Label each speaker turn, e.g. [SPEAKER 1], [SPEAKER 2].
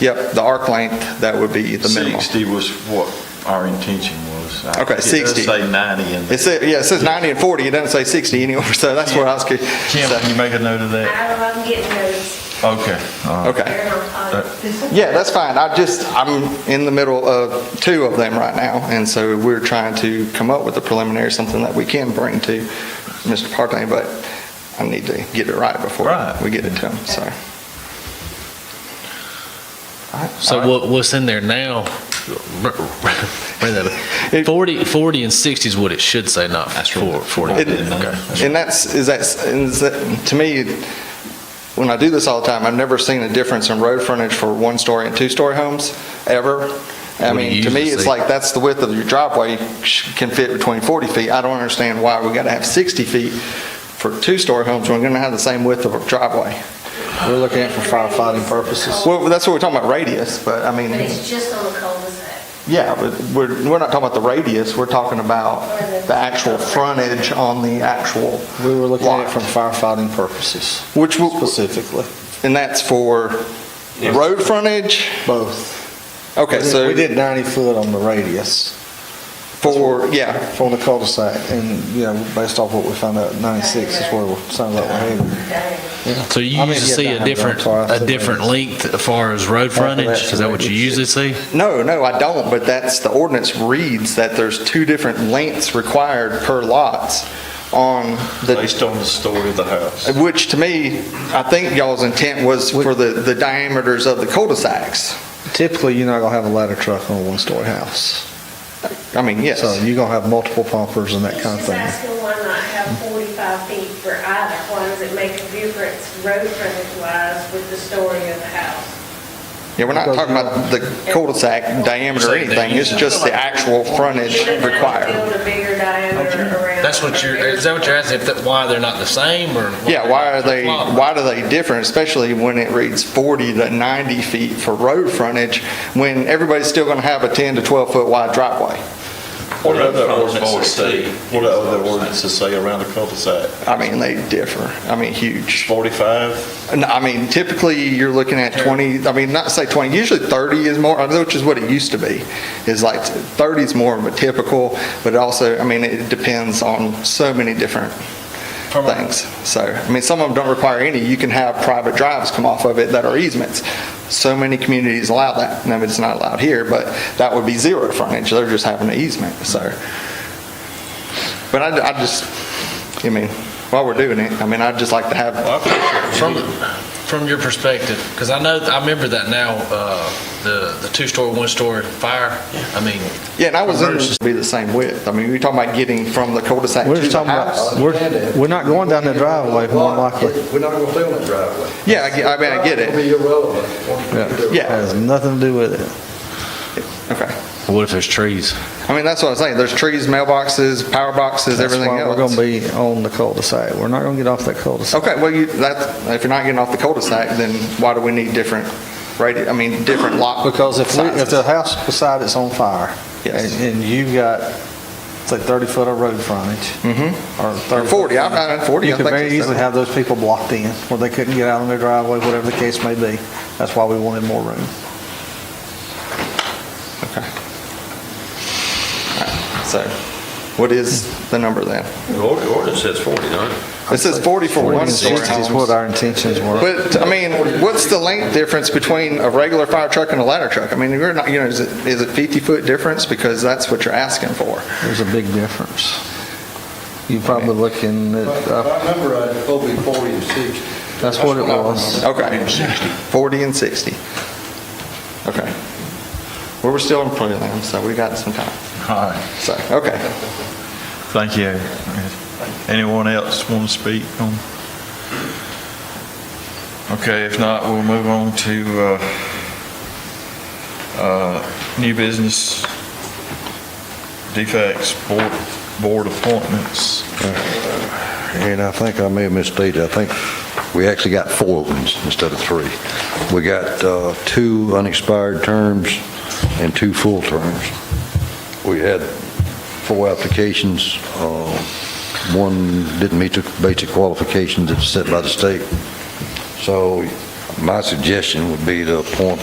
[SPEAKER 1] Yep, the arc length, that would be the minimum.
[SPEAKER 2] 60 was what our intention was. I-
[SPEAKER 1] Okay, 60.
[SPEAKER 2] It does say 90 in
[SPEAKER 1] It
[SPEAKER 2] there.
[SPEAKER 1] said, yeah, it says 90 and 40, it doesn't say 60 anywhere, so that's where I was,
[SPEAKER 2] Kim,
[SPEAKER 1] so-
[SPEAKER 2] can you make a note of that?
[SPEAKER 3] I am getting those.
[SPEAKER 2] Okay. all right.
[SPEAKER 1] okay.
[SPEAKER 3] They're not on.
[SPEAKER 1] Yeah, that's fine. I just, I'm in the middle of two of them right now, and so we're trying to come up with a preliminary, something that we can bring to Mr. Partain, but I need to get it right before
[SPEAKER 2] Right.
[SPEAKER 1] we get it to him, so.
[SPEAKER 4] So what, what's in there now? Bring that up. 40, 40 and 60 is what it should say, not four- 40.
[SPEAKER 1] It-
[SPEAKER 4] Okay.
[SPEAKER 1] And that's, is that, is that, to me, when I do this all the time, I've never seen a difference in road frontage for one-story and two-story homes, ever. I
[SPEAKER 4] What do you
[SPEAKER 1] mean, to me,
[SPEAKER 4] usually
[SPEAKER 1] it's
[SPEAKER 4] see?
[SPEAKER 1] like, that's the width of your driveway sh- can fit between 40 feet. I don't understand why we gotta have 60 feet for two-story homes, when we're gonna have the same width of a driveway.
[SPEAKER 5] We're looking at it for firefighting purposes.
[SPEAKER 1] Well, that's what we're talking about radius, but I
[SPEAKER 3] But
[SPEAKER 1] mean,
[SPEAKER 3] it's just on the cul-de-sac.
[SPEAKER 1] yeah, but we're, we're not talking about the radius, we're talking about the actual frontage on the actual
[SPEAKER 5] We were looking at it
[SPEAKER 1] lot.
[SPEAKER 5] for firefighting purposes,
[SPEAKER 1] Which will,
[SPEAKER 5] specifically,
[SPEAKER 1] and that's for road frontage?
[SPEAKER 5] both.
[SPEAKER 1] Okay,
[SPEAKER 5] We did-
[SPEAKER 1] so
[SPEAKER 5] We did 90 foot on the radius
[SPEAKER 1] for, yeah,
[SPEAKER 5] for the cul-de-sac, and, you know, based off what we found out, 96 is where we're, sounds like we're heading.
[SPEAKER 4] So you
[SPEAKER 5] I
[SPEAKER 4] usually
[SPEAKER 5] mean, yeah,
[SPEAKER 4] see
[SPEAKER 5] that
[SPEAKER 4] a
[SPEAKER 5] happens.
[SPEAKER 4] different,
[SPEAKER 5] I'm sorry, I
[SPEAKER 4] a
[SPEAKER 5] said
[SPEAKER 4] different length as far as road frontage? Is that what you usually see?
[SPEAKER 1] no, no, I don't, but that's, the ordinance reads that there's two different lengths required per lots on the,
[SPEAKER 2] Based on the story of the house.
[SPEAKER 1] which to me, I think y'all's intent was for the, the diameters of the cul-de-sacs.
[SPEAKER 5] Typically, you're not going to have a ladder truck on a one-story house.
[SPEAKER 1] I mean, yes,
[SPEAKER 5] So you're going to have multiple pumpers and that
[SPEAKER 3] She's
[SPEAKER 5] kind of
[SPEAKER 3] just
[SPEAKER 5] thing.
[SPEAKER 3] asking why not have 45 feet for either? Why does it make a difference road frontage wise with the story of the house?
[SPEAKER 1] yeah, we're not talking about the cul-de-sac diameter or anything, it's just the actual frontage
[SPEAKER 3] You don't have to
[SPEAKER 1] required.
[SPEAKER 3] Build a bigger diameter around.
[SPEAKER 4] That's what you're, is that what you're asking, if that- why they're not the same, or?
[SPEAKER 1] Yeah, why are they, why do they differ, especially when it reads 40 to 90 feet for road frontage, when everybody's still going to have a 10 to 12-foot wide driveway?
[SPEAKER 2] What do other ordinances say? What do other ordinances say around the cul-de-sac?
[SPEAKER 1] I mean, they differ, I mean, huge.
[SPEAKER 2] 45?
[SPEAKER 1] And I mean, typically, you're looking at 20, I mean, not to say 20, usually 30 is more, which is what it used to be, is like 30 is more of a typical, but it also, I mean, it depends on so many different things. So, I mean, some of them don't require any. You can have private drives come off of it that are easements. So many communities allow that. Now, it's not allowed here, but that would be zero frontage. They're just having an easement, so. But I, I just, I mean, while we're doing it, I mean, I'd just like to have,
[SPEAKER 4] From, from your perspective, because I know, I remember that now, uh, the, the two-story, one-story fire, I mean,
[SPEAKER 1] yeah, and I was in, it'd be the same width. I mean, we're talking about getting from the cul-de-sac to
[SPEAKER 5] We're just
[SPEAKER 1] the
[SPEAKER 5] talking about,
[SPEAKER 1] house.
[SPEAKER 5] we're, we're not going down that driveway, more likely.
[SPEAKER 6] We're not going to fill that driveway.
[SPEAKER 1] Yeah, I get- I mean, I get
[SPEAKER 6] It'll be
[SPEAKER 1] it.
[SPEAKER 6] irrelevant.
[SPEAKER 1] Yeah.
[SPEAKER 5] Has nothing to do with it.
[SPEAKER 1] Okay.
[SPEAKER 4] what if there's trees?
[SPEAKER 1] I mean, that's what I'm saying. There's trees, mailboxes, power boxes, everything else.
[SPEAKER 5] That's why we're going to be on the cul-de-sac. We're not going to get off that cul-de-sac.
[SPEAKER 1] Okay, well, you, that, if you're not getting off the cul-de-sac, then why do we need different radi, I mean, different lot?
[SPEAKER 5] Because if, we- if the
[SPEAKER 1] sizes?
[SPEAKER 5] house beside it's on fire,
[SPEAKER 1] Yes.
[SPEAKER 5] and and you've got, say, 30 foot of road frontage. Or 30.
[SPEAKER 1] Mm-hmm. Or 40, I'm, I'm 40.
[SPEAKER 5] You
[SPEAKER 1] I
[SPEAKER 5] could
[SPEAKER 1] think
[SPEAKER 5] very
[SPEAKER 1] it's-
[SPEAKER 5] easily have those people blocked in, where they couldn't get out on their driveway, whatever the case may be. That's why we wanted more room.
[SPEAKER 1] So, what is the number then?
[SPEAKER 7] The ord- ordinance says 40, don't it?
[SPEAKER 1] It says 40 for
[SPEAKER 5] Forty
[SPEAKER 1] one
[SPEAKER 5] and
[SPEAKER 1] story
[SPEAKER 5] 60 is what
[SPEAKER 1] homes.
[SPEAKER 5] our intentions were.
[SPEAKER 1] But, I mean, what's the length difference between a regular fire truck and a ladder truck? I mean, we're not, you know, is it, is it 50-foot difference? Because that's what you're asking for.
[SPEAKER 5] There's a big difference. You're probably looking at, uh,
[SPEAKER 6] I remember I'd probably 40 and 60.
[SPEAKER 5] that's what it was.
[SPEAKER 1] Okay. 40 and 60. Okay. Well, we're still in prelim, so we got some time.
[SPEAKER 2] All right,
[SPEAKER 1] So, okay.
[SPEAKER 2] thank you. Anyone else want to speak on? Okay, if not, we'll move on to uh, uh, new business defects, board board appointments.
[SPEAKER 8] And I think I may have misstated, I think we actually got four openings instead of three. We got uh, two unexpired terms and two full terms. We had four applications. uh, One didn't meet the basic qualifications that's set by the state. So my suggestion would be to appoint